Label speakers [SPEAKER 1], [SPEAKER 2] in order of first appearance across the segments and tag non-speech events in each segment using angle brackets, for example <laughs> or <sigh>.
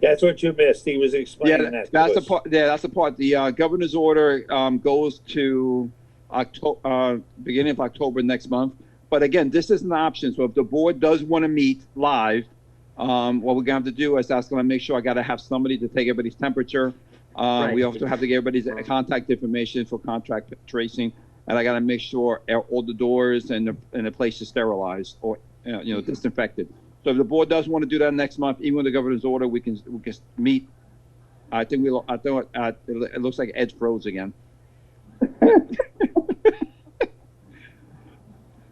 [SPEAKER 1] That's what you missed. He was explaining
[SPEAKER 2] Yeah,
[SPEAKER 1] that. to
[SPEAKER 2] that's the
[SPEAKER 1] us.
[SPEAKER 2] part. Yeah, that's the part. The uh, governor's order um, goes to October, uh, beginning of October next month. But again, this is an option. So if the board does want to meet live, um, what we're gonna have to do is ask them to make sure I gotta have somebody to take everybody's temperature. Uh, we
[SPEAKER 1] Right.
[SPEAKER 2] also have to get everybody's contact information for contract tracing, and I gotta make sure e, all the doors and the and the place is sterilized or uh, you know disinfected. So if the board does want to do that next month, even with the governor's order, we can we can meet I think we. lo- I thought uh, it lo- it looks like Edge froze again.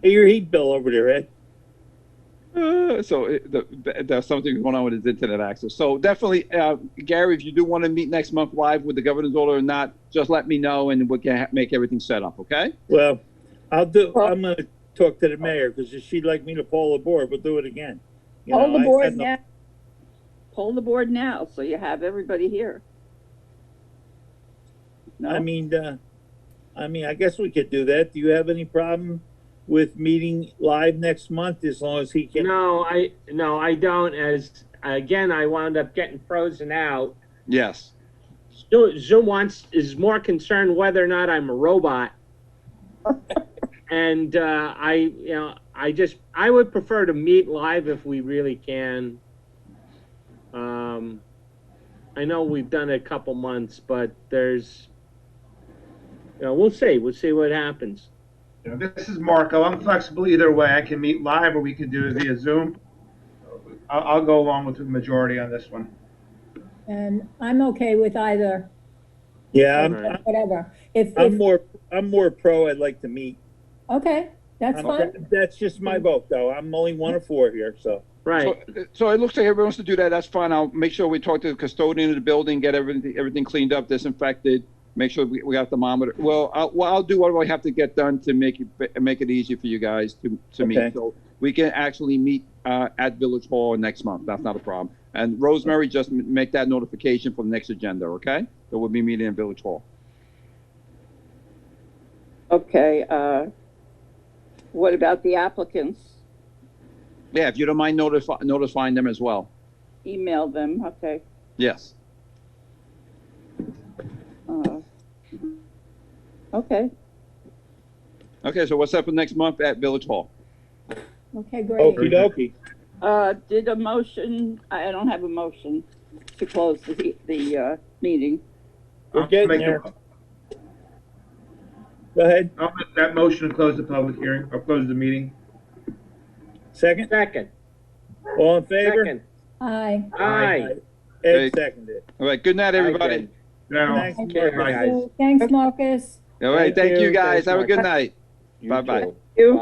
[SPEAKER 1] Hey, your heat bill over there, Ed.
[SPEAKER 2] Uh, so it, the, the, there's something going on with his internet access. So definitely, uh, Gary, if you do want to meet next month live with the governor's order or not, just let me know and we can ha- make everything set up. Okay?
[SPEAKER 1] Well, I'll do.
[SPEAKER 3] Well-
[SPEAKER 1] I'm going to talk to the mayor because if she'd like me to poll the board, we'll do it again. You
[SPEAKER 3] Poll
[SPEAKER 1] know,
[SPEAKER 3] the
[SPEAKER 1] I- I
[SPEAKER 3] board
[SPEAKER 1] know-
[SPEAKER 3] now. Poll the board now, so you have everybody here.
[SPEAKER 1] I
[SPEAKER 3] No,
[SPEAKER 1] mean, uh, I mean, I guess we could do that. Do you have any problem with meeting live next month as long as he can?
[SPEAKER 4] No, I, no, I don't, as, again, I wound up getting frozen out.
[SPEAKER 2] Yes.
[SPEAKER 4] Zo- Zoom wants, is more concerned whether or not I'm
[SPEAKER 2] <laughs>
[SPEAKER 4] a robot. And, uh, I, you know, I just, I would prefer to meet live if we really can. Um, I know we've done it a couple months, but there's, you know, we'll see, we'll see what happens.
[SPEAKER 5] You know, this is Marco. I'm flexible either way. I can meet live or we can do it via Zoom. I'll, I'll go along with the majority on this one.
[SPEAKER 6] And I'm okay with either,
[SPEAKER 1] Yeah, I'm,
[SPEAKER 4] Right.
[SPEAKER 6] whatever. If,
[SPEAKER 1] I'm
[SPEAKER 6] if,
[SPEAKER 1] more, I'm more pro. I'd like to meet.
[SPEAKER 6] okay, that's
[SPEAKER 1] I'm-
[SPEAKER 6] fine.
[SPEAKER 1] That's just my vote though. I'm only one of four here, so.
[SPEAKER 4] Right.
[SPEAKER 2] So, so it looks like everyone wants to do that. That's fine. I'll make sure we talk to the custodian of the building, get everything everything cleaned up, disinfected. Make sure we, we got the monitor. Well, I'll, well, I'll do what I have to get done to make it make it easy for you guys to to
[SPEAKER 1] Okay.
[SPEAKER 2] meet. So we can actually meet uh, at Village Hall next month. That's not a problem. And Rosemary, just m- make that notification for the next agenda, okay? That we'll be meeting in Village Hall.
[SPEAKER 3] okay, uh, what about the applicants?
[SPEAKER 2] Yeah, if you don't mind notify, notifying them as well.
[SPEAKER 3] Email them, okay.
[SPEAKER 2] Yes.
[SPEAKER 3] uh, Okay,
[SPEAKER 2] Okay. So what's up for next month at Village Hall?
[SPEAKER 6] Okay, great.
[SPEAKER 1] Okey dokey.
[SPEAKER 3] uh, did a motion, I I don't have a motion to close the, the, uh, meeting.
[SPEAKER 1] We're
[SPEAKER 5] I'll
[SPEAKER 1] getting
[SPEAKER 5] make the-
[SPEAKER 1] there. Go ahead.
[SPEAKER 5] I'll make that motion to close the public hearing, or close the meeting.
[SPEAKER 1] Second.
[SPEAKER 4] Second,
[SPEAKER 1] All in favor?
[SPEAKER 4] second,
[SPEAKER 6] Aye.
[SPEAKER 4] aye.
[SPEAKER 1] Ed seconded.
[SPEAKER 2] All right. Good night, everybody.
[SPEAKER 4] Aye, Ben.
[SPEAKER 5] Now,
[SPEAKER 1] Thanks,
[SPEAKER 6] Thank
[SPEAKER 4] Okay,
[SPEAKER 6] you.
[SPEAKER 4] guys.
[SPEAKER 6] Thanks, Marcus.
[SPEAKER 2] All right.
[SPEAKER 1] Thank
[SPEAKER 2] Thank
[SPEAKER 1] you.
[SPEAKER 2] you, guys.
[SPEAKER 4] Thanks,
[SPEAKER 2] Have a good
[SPEAKER 4] Mark.
[SPEAKER 2] night.
[SPEAKER 1] You
[SPEAKER 2] Bye-bye.
[SPEAKER 1] too.
[SPEAKER 3] You?